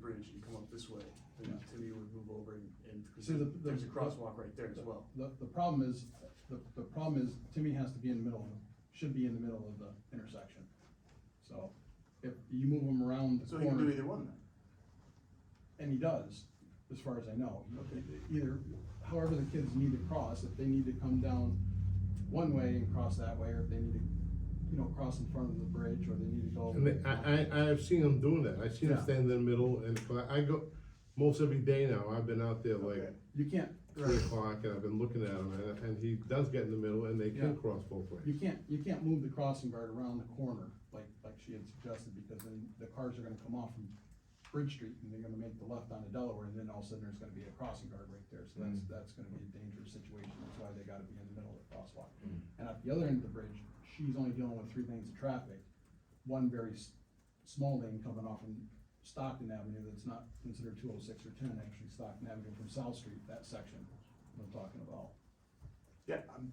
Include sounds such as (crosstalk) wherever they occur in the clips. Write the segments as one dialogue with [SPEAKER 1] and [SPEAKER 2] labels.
[SPEAKER 1] frontage and come up this way, then Timmy would move over and, and, cause
[SPEAKER 2] See, the- the-
[SPEAKER 1] there's a crosswalk right there as well.
[SPEAKER 2] The, the problem is, the, the problem is Timmy has to be in the middle, of- should be in the middle of the intersection. So if you move him around the
[SPEAKER 1] So he can do
[SPEAKER 2] corner,
[SPEAKER 1] either one then?
[SPEAKER 2] and he does, as far as I know.
[SPEAKER 1] Okay.
[SPEAKER 2] Either, however the kids need to cross, if they need to come down one way and cross that way, or if they need to, you know, cross in front of the bridge, or they need to go.
[SPEAKER 3] And they- I, I, I've seen them doing that, I see them
[SPEAKER 2] Yeah.
[SPEAKER 3] stand in the middle and collect- I go, most every day now, I've been out there like
[SPEAKER 1] Okay.
[SPEAKER 2] You can't,
[SPEAKER 3] three o'clock and I've been looking at him and, and he does get in the middle and they can
[SPEAKER 2] Yeah.
[SPEAKER 3] cross both ways.
[SPEAKER 2] you can't, you can't move the crossing guard around the corner, like, like she had suggested, because then the cars are gonna come off from Bridge Street, and they're gonna make the left onto Delaware, and then all of a sudden, there's gonna be a crossing guard right there, so that's, that's gonna be a dangerous situation, that's why they gotta be in the middle of the crosswalk. And at the other end of the bridge, she's only dealing with three lanes of traffic, one very s- small lane coming off from Stockton Avenue that's not considered two oh six or ten, actually Stockton Avenue from South Street, that section I'm talking about.
[SPEAKER 1] Yeah, I'm,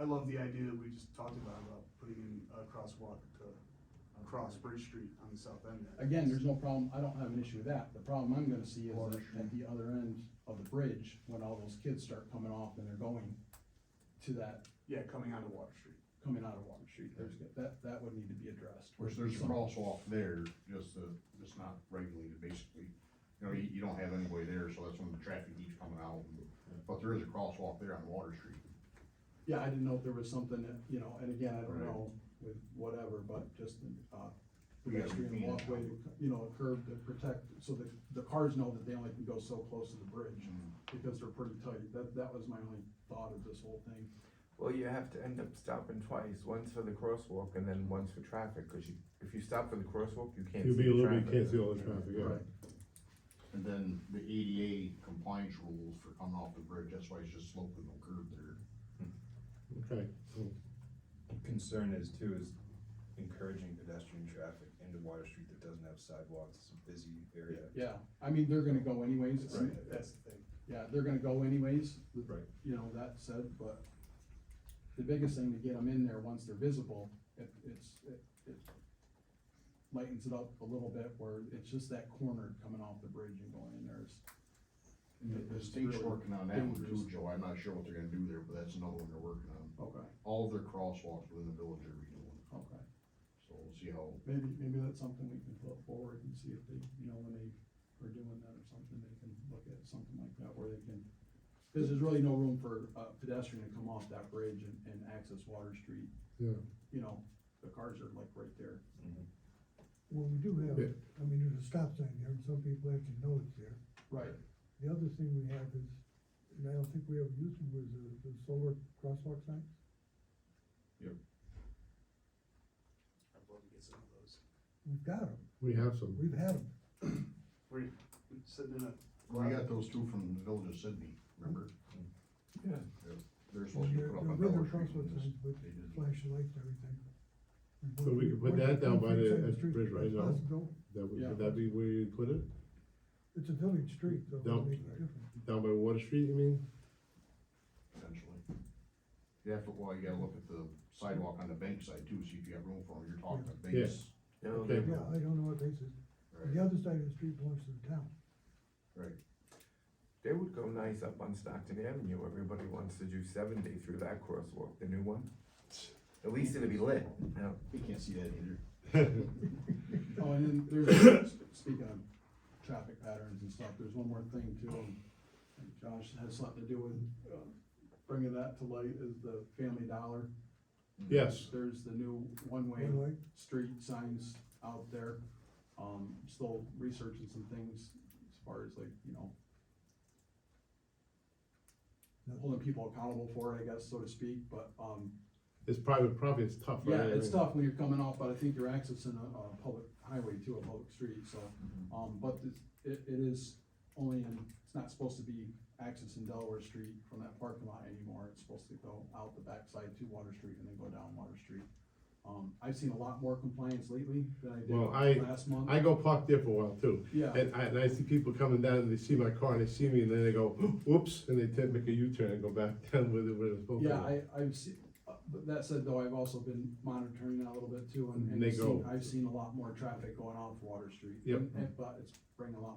[SPEAKER 1] I love the idea that we just talked about, about putting in a crosswalk to cross Bridge Street on the south end. there.
[SPEAKER 2] Again, there's no problem, I don't have an issue with that, the problem I'm gonna see is
[SPEAKER 1] Water
[SPEAKER 2] that at the other end of the bridge, when all those kids start coming off and they're going to that,
[SPEAKER 1] Yeah, coming onto Water Street.
[SPEAKER 2] coming out of Water Street, there's, that, that would need to be addressed.
[SPEAKER 4] Which there's a
[SPEAKER 2] Some-
[SPEAKER 4] crosswalk there, just the, it's not regulated basically. You know, you, you don't have anybody there, so that's when the traffic keeps coming out. But there is a crosswalk there on Water Street.
[SPEAKER 2] Yeah, I didn't know if there was something that, you know, and again, I don't
[SPEAKER 4] Right.
[SPEAKER 2] know with whatever, but just, uh,
[SPEAKER 4] We gotta
[SPEAKER 2] pedestrian
[SPEAKER 4] be-
[SPEAKER 2] walkway, you know, a curb to protect, so that the cars know that they only can go so close to the bridge,
[SPEAKER 4] Mm-hmm.
[SPEAKER 2] because they're pretty tight, that, that was my only thought of this whole thing.
[SPEAKER 5] Well, you have to end up stopping twice, once for the crosswalk and then once for traffic, cause you, if you stop for the crosswalk, you can't see
[SPEAKER 3] You'll be a
[SPEAKER 5] the
[SPEAKER 3] little bit,
[SPEAKER 5] traffic.
[SPEAKER 3] can't see all the traffic, yeah.
[SPEAKER 2] Right.
[SPEAKER 4] And then the ADA compliance rules for coming off the bridge, that's why it's just sloping no curb there.
[SPEAKER 3] Okay, cool.
[SPEAKER 6] concern is too is encouraging pedestrian traffic into Water Street that doesn't have sidewalks, it's a busy area.
[SPEAKER 2] Yeah, I mean, they're gonna go anyways,
[SPEAKER 6] Right.
[SPEAKER 1] That's the thing.
[SPEAKER 2] yeah, they're gonna go anyways, with-
[SPEAKER 6] Right.
[SPEAKER 2] you know, that said, but the biggest thing to get them in there, once they're visible, it, it's, it, it lightens it up a little bit, where it's just that corner coming off the bridge and going in there is.
[SPEAKER 4] The- The
[SPEAKER 2] it's
[SPEAKER 4] state's
[SPEAKER 2] really
[SPEAKER 4] working on that one too,
[SPEAKER 2] dangerous.
[SPEAKER 4] Joe. I'm not sure what they're gonna do there, but that's another one they're working on.
[SPEAKER 2] Okay,
[SPEAKER 4] All of their crosswalks within the village are redoing,
[SPEAKER 2] okay,
[SPEAKER 4] so we'll see how,
[SPEAKER 2] maybe, maybe that's something we can put forward and see if they, you know, when they are doing that or something, they can look at something like that, where they can, cause there's really no room for a pedestrian to come off that bridge and, and access Water Street
[SPEAKER 3] yeah.
[SPEAKER 2] you know, the cars are like right there.
[SPEAKER 7] Well, we do have,
[SPEAKER 3] Yeah.
[SPEAKER 7] I mean, there's a stop sign there, and some people actually know it's there.
[SPEAKER 2] Right.
[SPEAKER 7] The other thing we have is, and I don't think we ever used them, was the, the solar crosswalk signs.
[SPEAKER 1] I'd love to get some of those.
[SPEAKER 7] We've got them,
[SPEAKER 3] We have some,
[SPEAKER 7] we've had them.
[SPEAKER 1] We're sitting in a.
[SPEAKER 4] we got those two from the village of Sydney, remember?
[SPEAKER 7] Yeah.
[SPEAKER 4] They're supposed to be put up on
[SPEAKER 7] They're regular
[SPEAKER 4] Dollar Street.
[SPEAKER 7] crosswalk
[SPEAKER 4] and
[SPEAKER 7] signs with
[SPEAKER 4] they didn't.
[SPEAKER 7] flashing lights and everything.
[SPEAKER 3] So we could put that down by the- at the bridge right now.
[SPEAKER 7] That's built-
[SPEAKER 3] that would,
[SPEAKER 2] Yeah.
[SPEAKER 3] would that be where you put it?
[SPEAKER 7] It's a village street, so it
[SPEAKER 3] Down.
[SPEAKER 7] would make a difference.
[SPEAKER 3] Down by Water Street, you mean?
[SPEAKER 4] potentially. You have to, well, you gotta look at the sidewalk on the bank side too, see if you have room for them, you're talking about banks.
[SPEAKER 5] No,
[SPEAKER 3] Okay.
[SPEAKER 7] Yeah, I don't know what basis, the
[SPEAKER 4] Right,
[SPEAKER 7] other side of the street belongs to the town.
[SPEAKER 4] right,
[SPEAKER 5] They would go nice up on Stockton Avenue, everybody wants to do seventy through that crosswalk, the new one. At least it'd be lit, now,
[SPEAKER 4] you can't see that either.
[SPEAKER 2] Oh, and then there's, speaking of traffic patterns and stuff, there's one more thing too. and Josh it has something to do with, uh, bringing that to light is the Family Dollar.
[SPEAKER 3] Yes,
[SPEAKER 2] There's the new one-way
[SPEAKER 7] One way.
[SPEAKER 2] street signs out there. Um, still researching some things as far as like, you know, holding people accountable for it, I guess, so to speak, but, um,
[SPEAKER 3] it's private property, it's tough, right?
[SPEAKER 2] Yeah, it's tough when you're coming off, but I think you're accessing a, a public highway to a public street, so,
[SPEAKER 3] Mm-hmm.
[SPEAKER 2] um, but it's- it, it is only in, it's not supposed to be accessing Delaware Street from that parking lot anymore, it's supposed to go out the backside to Water Street and then go down Water Street. Um, I've seen a lot more compliance lately than
[SPEAKER 3] Well,
[SPEAKER 2] I
[SPEAKER 3] I-
[SPEAKER 2] did last month.
[SPEAKER 3] I go park there for a while too.
[SPEAKER 2] Yeah.
[SPEAKER 3] And I, and I see people coming down and they see my car and they see me and then they go, whoops, and they tend to make a U-turn and go back (laughs) down where they were supposed to.
[SPEAKER 2] Yeah,
[SPEAKER 3] go.
[SPEAKER 2] I, I've seen, but that said though, I've also been monitoring that a little bit too, and, and
[SPEAKER 3] They
[SPEAKER 2] I've seen,
[SPEAKER 3] go-
[SPEAKER 2] I've seen a lot more traffic going off Water Street.
[SPEAKER 3] Yep.
[SPEAKER 2] And- and- But it's bringing a lot